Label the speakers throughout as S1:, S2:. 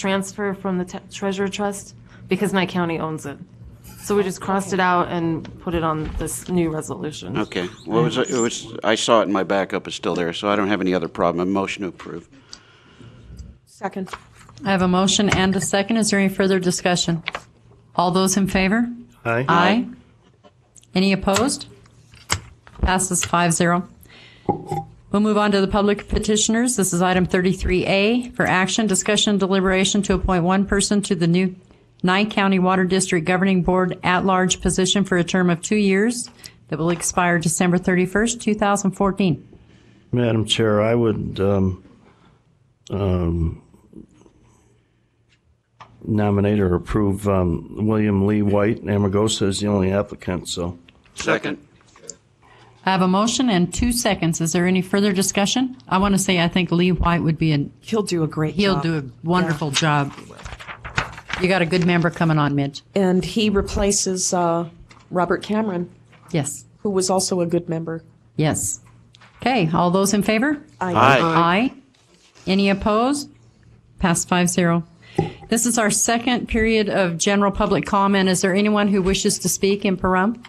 S1: transfer from the te- treasurer trust because my county owns it. So we just crossed it out and put it on this new resolution.
S2: Okay, well, it was, it was, I saw it in my backup, it's still there, so I don't have any other problem. A motion to approve.
S1: Second.
S3: I have a motion and a second. Is there any further discussion? All those in favor? Aye. Any opposed? Passes 5-0. We'll move on to the public petitioners. This is item 33A for action, discussion, and deliberation to appoint one person to the new Nye County Water District Governing Board at-large position for a term of two years that will expire December 31st, 2014.
S4: Madam Chair, I would um, um, nominate or approve um, William Lee White. Amagosa is the only applicant, so.
S2: Second.
S3: I have a motion and two seconds. Is there any further discussion? I want to say I think Lee White would be an
S5: He'll do a great
S3: He'll
S5: job.
S3: do a wonderful job. You got a good member coming on, Midge.
S5: And he replaces uh, Robert Cameron,
S3: Yes,
S5: who was also a good member.
S3: yes. Okay, all those in favor? Aye. Any opposed? Passed five zero. This is our second period of general public comment. Is there anyone who wishes to speak in Pahrump?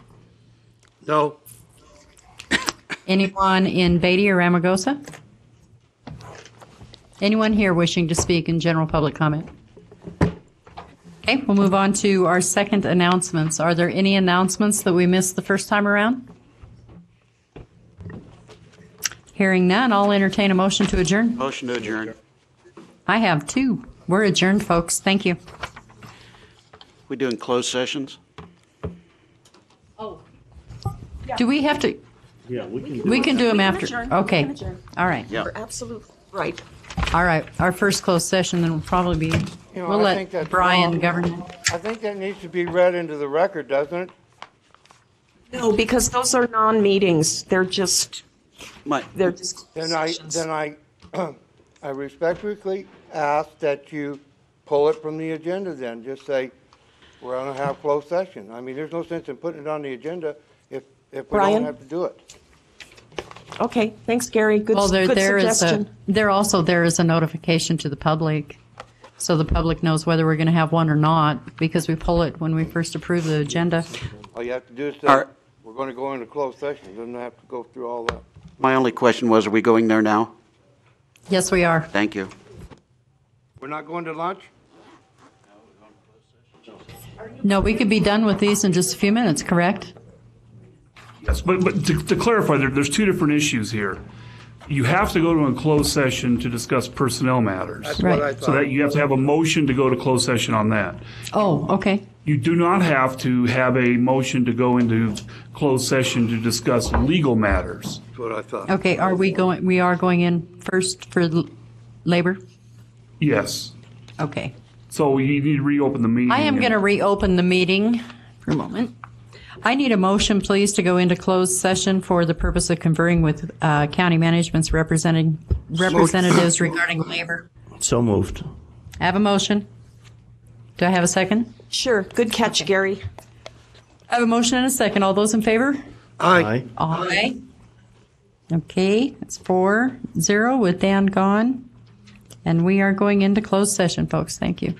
S2: No.
S3: Anyone in Beatty or Ramagosa? Anyone here wishing to speak in general public comment? Okay, we'll move on to our second announcements. Are there any announcements that we missed the first time around? Hearing none, I'll entertain a motion to adjourn.
S2: Motion to adjourn.
S3: I have two. We're adjourned, folks. Thank you.
S2: We doing closed sessions?
S3: Do we have to,
S4: Yeah, we can
S3: we can do them after?
S5: adjourn. We
S3: Okay,
S5: can adjourn.
S3: all right.
S2: Yeah.
S5: Absolutely right.
S3: All right, our first closed session then will probably be,
S6: You know,
S3: we'll
S6: I think
S3: let
S6: that's
S3: Brian
S6: wrong.
S3: govern. it.
S6: I think that needs to be read into the record, doesn't it?
S5: No, because those are non-meetings. They're just,
S2: My,
S5: they're just.
S6: Then I, then I, I respectfully ask that you pull it from the agenda then, just say, we're gonna have closed session. I mean, there's no sense in putting it on the agenda if, if we
S5: Brian?
S6: don't have to do it.
S5: Okay, thanks, Gary. Good,
S3: Well, there,
S5: good
S3: there is a,
S5: suggestion.
S3: there also, there is a notification to the public, so the public knows whether we're going to have one or not, because we pull it when we first approve the agenda.
S6: All you have to do is say,
S2: Are-
S6: we're gonna go into closed session, doesn't have to go through all that.
S2: my only question was, are we going there now?
S3: Yes, we are.
S2: Thank you.
S6: We're not going to lunch?
S3: No, we could be done with these in just a few minutes, correct?
S7: Yes, but, but to, to clarify, there, there's two different issues here. You have to go to a closed session to discuss personnel matters.
S3: Right.
S6: What I
S7: So
S6: thought.
S7: that you have to have a motion to go to closed session on that.
S3: Oh, okay.
S7: You do not have to have a motion to go into closed session to discuss legal matters.
S6: That's what I thought.
S3: Okay, are we going, we are going in first for l- labor?
S7: Yes.
S3: Okay.
S7: So you need to reopen the meeting.
S3: I am going to reopen the meeting for a moment. I need a motion, please, to go into closed session for the purpose of conferring with uh, county management's representing representatives regarding labor.
S4: So moved.
S3: I have a motion. Do I have a second?
S5: Sure, good catch, Gary.
S3: I have a motion and a second. All those in favor?
S4: Aye.
S3: Aye. Okay, it's four zero with Dan gone. And we are going into closed session, folks. Thank you.